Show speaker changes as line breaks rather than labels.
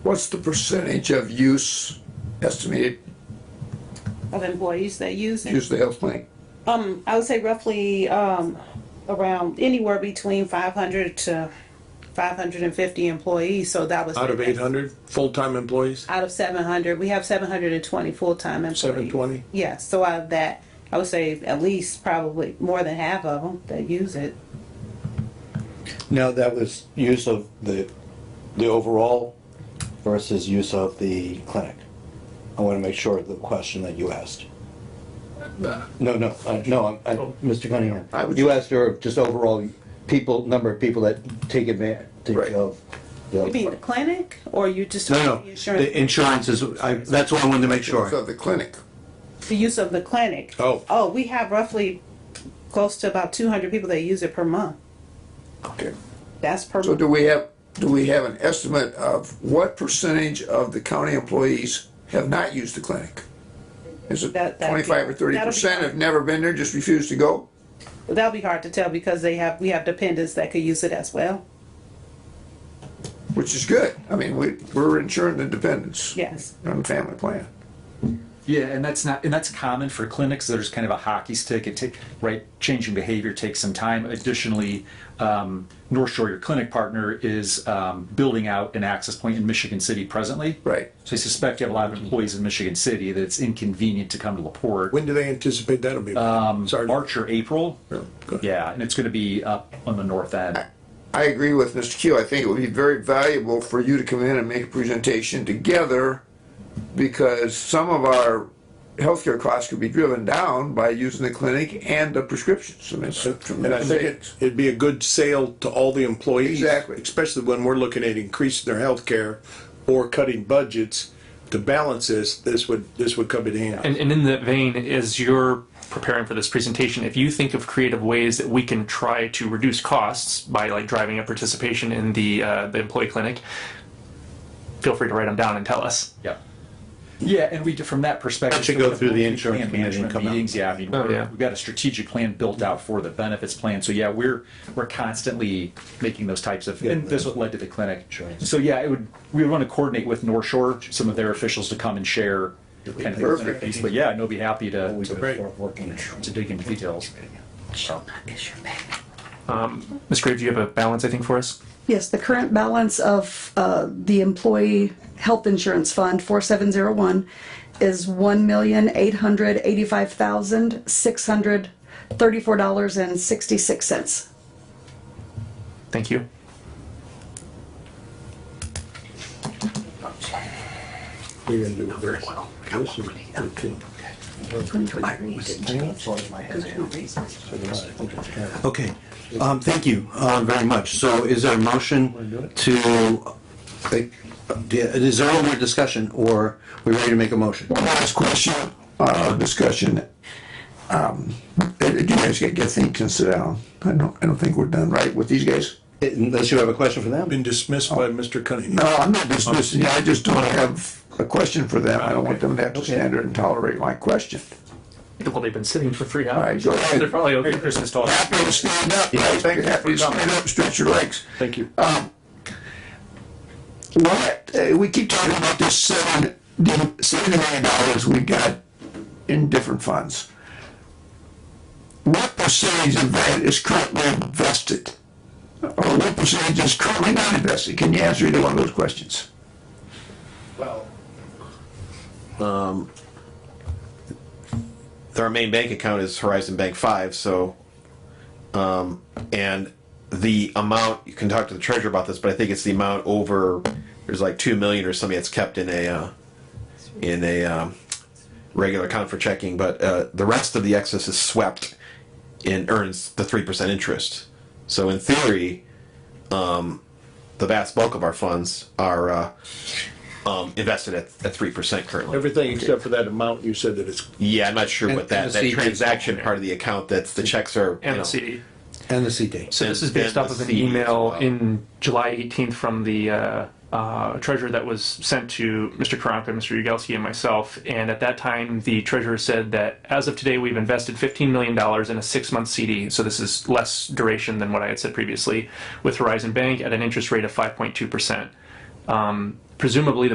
What's the percentage of use estimated,
of employees that use it.
use the health clinic?
Um, I would say roughly, um, around anywhere between five hundred to five hundred and fifty employees, so that was.
Out of eight hundred full-time employees,
Out of seven hundred, we have seven hundred and twenty full-time employees.
seven twenty?
Yeah, so out of that, I would say at least probably more than half of them that use it.
No, that was use of the, the overall versus use of the clinic. I want to make sure of the question that you asked. No, no, uh, no, I'm- I, Mr. Cunningham,
I was-
you asked her just overall people, number of people that take advantage
Right.
of. the-
You mean the clinic, or you just?
No, no,
the
the
Insurance,
insurance is, I, that's what I wanted to make
Use
sure.
of the clinic?
the use of the clinic.
Oh.
Oh, we have roughly close to about two hundred people that use it per month.
Okay.
That's per.
So do we have, do we have an estimate of what percentage of the county employees have not used the clinic? Is it
That- that'd be-
twenty-five or thirty percent
that'll be-
have never been there, just refused to go?
That'll be hard to tell because they have, we have dependents that could use it as well.
Which is good. I mean, we, we're insuring the dependents.
Yes.
On the family plan.
Yeah, and that's not, and that's common for clinics. There's kind of a hockey stick. It take right changing behavior takes some time. Additionally, um, North Shore, your clinic partner, is um, building out an access point in Michigan City presently.
Right.
So I suspect you have a lot of employees in Michigan City that it's inconvenient to come to Laporte.
When do they anticipate that'll be? Sorry.
Um, March or April. Yeah, and it's going to be up on the north end.
I agree with Mr. Keel. I think it would be very valuable for you to come in and make a presentation together because some of our healthcare costs could be driven down by using the clinic and the prescriptions. I mean, it's
And I
tremendous
think
savings.
it- it'd be a good sale to all the employees.
Exactly.
Especially when we're looking at increasing their health care or cutting budgets to balance this, this would, this would come in handy.
And, and in that vein, as you're preparing for this presentation, if you think of creative ways that we can try to reduce costs by like driving up participation in the uh, the employee clinic, feel free to write them down and tell us.
Yeah. Yeah, and we, do- from that perspective.
Actually go through the insurance
Plan
community and
management
come out.
Meetings, yeah, I mean,
Oh, yeah.
we're- we've got a strategic plan built out for the benefits plan, so yeah, we're, we're constantly making those types of, and this what led to the clinic. So yeah, it would, we would want to coordinate with North Shore, some of their officials to come and share kind of the clinic piece, but yeah, no, be happy to, to-
Working.
to dig into details.
Ms. Graves, do you have a balance, I think, for us?
Yes, the current balance of uh, the Employee Health Insurance Fund, 4701, is $1,885,634.66.
Thank you.
We're gonna do very well. This is- okay.
Okay, um, thank you, um, very much. So is there a motion to, is there any more discussion or we ready to make a motion?
Last question, uh, discussion. Um, uh, you guys gotta get things and sit down. I don't, I don't think we're done right with these guys.
Unless you have a question for them?
Been dismissed by Mr. Cunningham.
No, I'm not dismissing you. I just don't have a question for them. I don't want them to have to stand there and tolerate my question.
Well, they've been sitting for three
All right,
hours.
go ahead.
They're probably over Christmas talk.
Happy to stand up, right? Happy to stand up, stretch your legs.
Thank you.
What, uh, we keep talking about this seven, the seven million dollars we got in different funds. What percentage of that is currently invested? Or what percentage is currently not invested? Can you answer either one of those questions?
their main bank account is Horizon Bank Five, so um, and the amount you can talk to the treasurer about this, but I think it's the amount over there's like two million or something that's kept in a uh, in a um, regular account for checking, but uh, the rest of the excess is swept and earns the three percent interest. So in theory, um, the vast bulk of our funds are uh, um, invested at at three percent currently.
Everything except for that amount you said that it's,
Yeah, I'm not sure what
and
that,
the
that
CD.
transaction part of the account, that's, the checks are. you
And
know,
the CD.
And the CT.
So this is
And- and
based off
the
of an
CD as
email
well.
in July 18th from the uh, uh, treasurer that was sent to Mr. Karanka, Mr. Yagowski, and myself. And at that time, the treasurer said that as of today, we've invested $15 million in a six-month CD. So this is less duration than what I had said previously with Horizon Bank at an interest rate of 5.2 percent. Um, presumably the